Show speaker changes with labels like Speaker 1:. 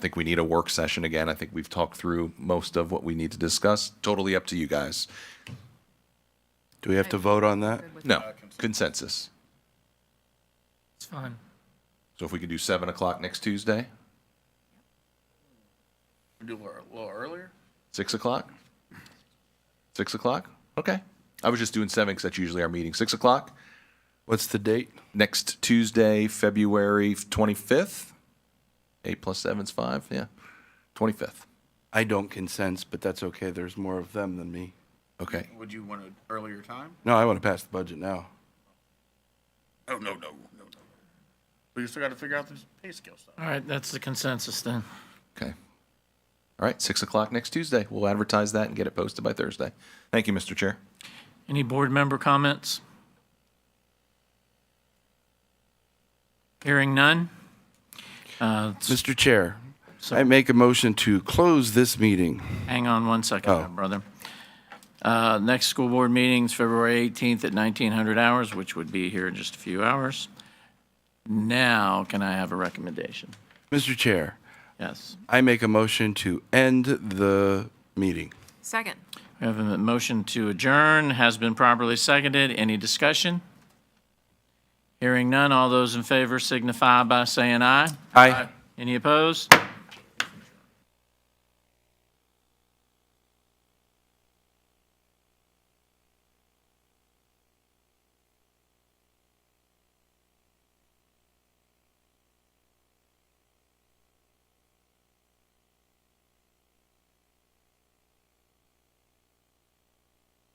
Speaker 1: think we need a work session again. I think we've talked through most of what we need to discuss. Totally up to you guys.
Speaker 2: Do we have to vote on that?
Speaker 1: No,
Speaker 3: uh,
Speaker 1: consensus.
Speaker 4: It's fine.
Speaker 1: So if we could do seven o'clock next Tuesday,
Speaker 3: We do a little- a little earlier?
Speaker 1: six o'clock? Six o'clock? Okay. I was just doing seven because that's usually our meeting. Six o'clock
Speaker 2: What's the date?
Speaker 1: next Tuesday, February 25th. Eight plus seven's five. Yeah. 25th.
Speaker 2: I don't consent, but that's okay. There's more of them than me.
Speaker 1: Okay.
Speaker 3: Would you want an earlier time?
Speaker 2: No, I want to pass the budget now.
Speaker 3: Oh, no, no, no, no. We still gotta figure out this pay scale stuff.
Speaker 4: All right, that's the consensus then.
Speaker 1: Okay. All right. Six o'clock next Tuesday. We'll advertise that and get it posted by Thursday. Thank you, Mr. Chair.
Speaker 4: Any board member comments? Hearing none? Uh, s-
Speaker 2: Mr. Chair, I make a motion to close this meeting.
Speaker 4: Hang on one second, my brother. Uh, Next school board meeting's February 18th at 1900 hours, which would be here in just a few hours. Now, can I have a recommendation?
Speaker 2: Mr. Chair,
Speaker 4: Yes.
Speaker 2: I make a motion to end the meeting.
Speaker 5: Second.
Speaker 4: We have a motion to adjourn, has been properly seconded. Any discussion? Hearing none, all those in favor signify by saying aye.
Speaker 2: Aye.
Speaker 4: Any opposed?